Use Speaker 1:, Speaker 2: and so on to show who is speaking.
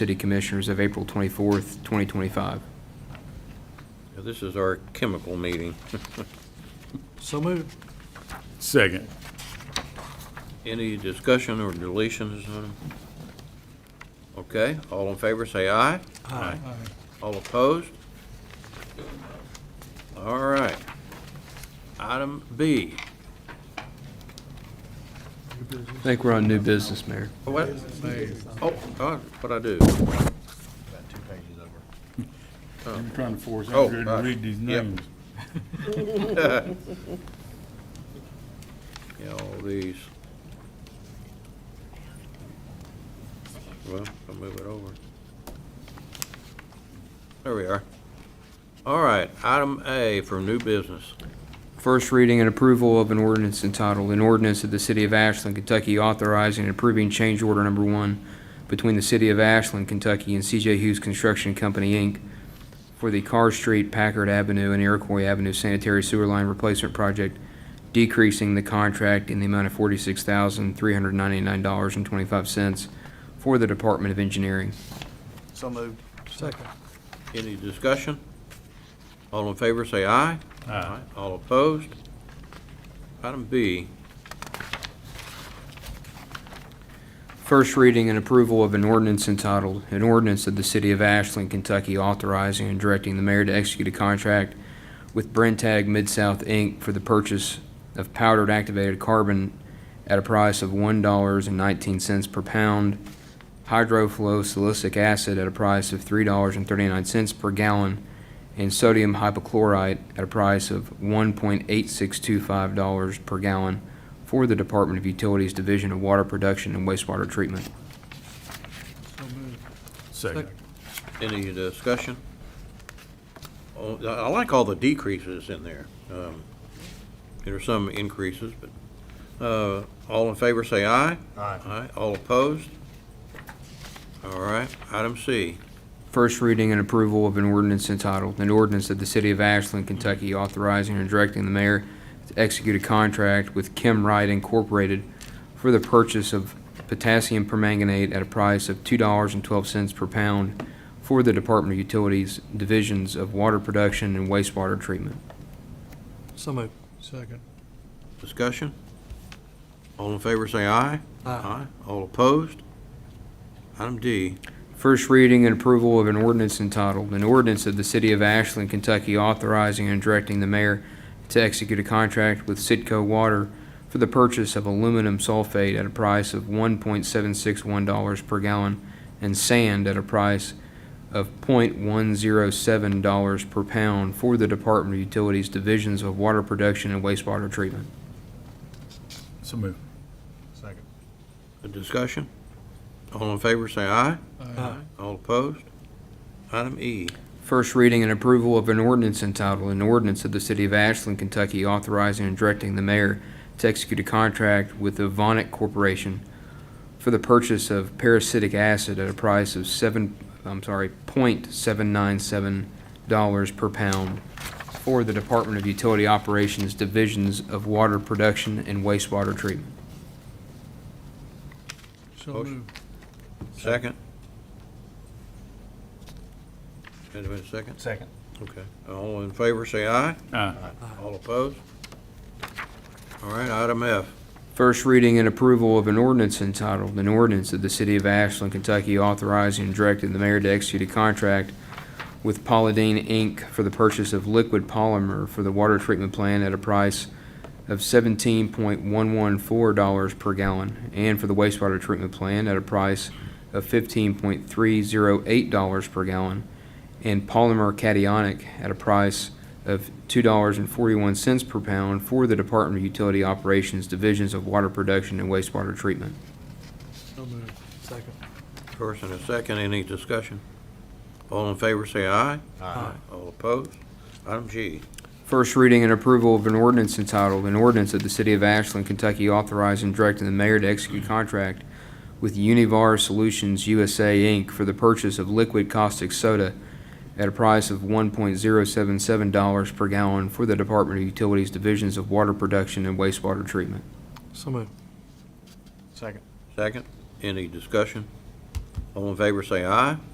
Speaker 1: City Commissioners of April 24th, 2025.
Speaker 2: Yeah, This is our chemical meeting.
Speaker 3: So moved.
Speaker 4: Second.
Speaker 2: Any discussion or deletions? on- Okay, all in favor, say aye.
Speaker 4: Aye.
Speaker 2: All opposed? All right. Item B.
Speaker 1: I think we're on new business, Mayor.
Speaker 2: What? Oh, God, what'd I do?
Speaker 4: I'm trying to force
Speaker 2: Oh,
Speaker 4: Andrew to
Speaker 2: right.
Speaker 4: read these
Speaker 2: Yep.
Speaker 4: names.
Speaker 2: Yeah, all these. Well, I'll move it over. There we are. All right, item A for new business.
Speaker 1: First reading and approval of an ordinance entitled, an ordinance of the City of Ashland, Kentucky authorizing and approving change order number one between the City of Ashland, Kentucky and CJ Hughes Construction Company, Inc. for the Carr Street, Packard Avenue, and Iroquois Avenue sanitary sewer line replacement project, decreasing the contract in the amount of forty-six thousand, three hundred ninety-nine dollars and twenty-five cents for the Department of Engineering.
Speaker 3: So moved. Second.
Speaker 2: Any discussion? All in favor, say aye.
Speaker 4: Aye.
Speaker 2: All opposed? Item B,
Speaker 1: First reading and approval of an ordinance entitled, an ordinance of the City of Ashland, Kentucky authorizing and directing the mayor to execute a contract with Brentag Mid-South, Inc. for the purchase of powdered activated carbon at a price of one dollars and nineteen cents per pound, hydroflow silicic acid at a price of three dollars and thirty-nine cents per gallon, and sodium hypochlorite at a price of one point eight six two five dollars per gallon for the Department of Utilities Division of Water Production and Wastewater Treatment.
Speaker 3: So moved.
Speaker 4: Second.
Speaker 2: any discussion? Oh, I I like all the decreases in there. Um, There are some increases, but, uh, all in favor, say aye. Aye. All opposed? All right, item C,
Speaker 1: First reading and approval of an ordinance entitled, an ordinance of the City of Ashland, Kentucky authorizing and directing the mayor to execute a contract with Kim Wright Incorporated for the purchase of potassium permanganate at a price of two dollars and twelve cents per pound for the Department of Utilities Divisions of Water Production and Wastewater Treatment.
Speaker 3: So moved. Second.
Speaker 2: discussion? All in favor, say aye.
Speaker 3: Aye.
Speaker 2: All opposed? Item D,
Speaker 1: First reading and approval of an ordinance entitled, an ordinance of the City of Ashland, Kentucky authorizing and directing the mayor to execute a contract with Sitco Water for the purchase of aluminum sulfate at a price of one point seven six one dollars per gallon and sand at a price of 0.107 dollars per pound for the Department of Utilities Divisions of Water Production and Wastewater Treatment.
Speaker 4: So moved. Second.
Speaker 2: a discussion? All in favor, say aye.
Speaker 3: Aye.
Speaker 2: All opposed? Item E,
Speaker 1: First reading and approval of an ordinance entitled, an ordinance of the City of Ashland, Kentucky authorizing and directing the mayor to execute a contract with the Vonic Corporation for the purchase of parasitic acid at a price of seven, I'm sorry, point seven nine seven dollars per pound for the Department of Utility Operations Divisions of Water Production and Wastewater Treatment.
Speaker 3: So
Speaker 2: Motion.
Speaker 3: moved.
Speaker 2: second? Can I have a second?
Speaker 5: Second.
Speaker 2: Okay. All in favor, say aye.
Speaker 4: Aye.
Speaker 2: All opposed? All right, item F,
Speaker 1: First reading and approval of an ordinance entitled, an ordinance of the City of Ashland, Kentucky authorizing and directing the mayor to execute a contract with Polydine, Inc. for the purchase of liquid polymer for the water treatment plant at a price of seventeen point one one four dollars per gallon, and for the wastewater treatment plant at a price of fifteen point three zero eight dollars per gallon, and polymer cationic at a price of two dollars and forty-one cents per pound for the Department of Utility Operations Divisions of Water Production and Wastewater Treatment.
Speaker 3: So moved. Second.
Speaker 2: first and a second, any discussion? All in favor, say aye.
Speaker 3: Aye.
Speaker 2: All opposed? Item G,
Speaker 1: First reading and approval of an ordinance entitled, an ordinance of the City of Ashland, Kentucky authorizing and directing the mayor to execute contract with Univar Solutions USA, Inc. for the purchase of liquid caustic soda at a price of one point zero seven seven dollars per gallon for the Department of Utilities Divisions of Water Production and Wastewater Treatment.
Speaker 3: So moved.
Speaker 5: Second.
Speaker 2: second, any discussion? All in favor, say aye.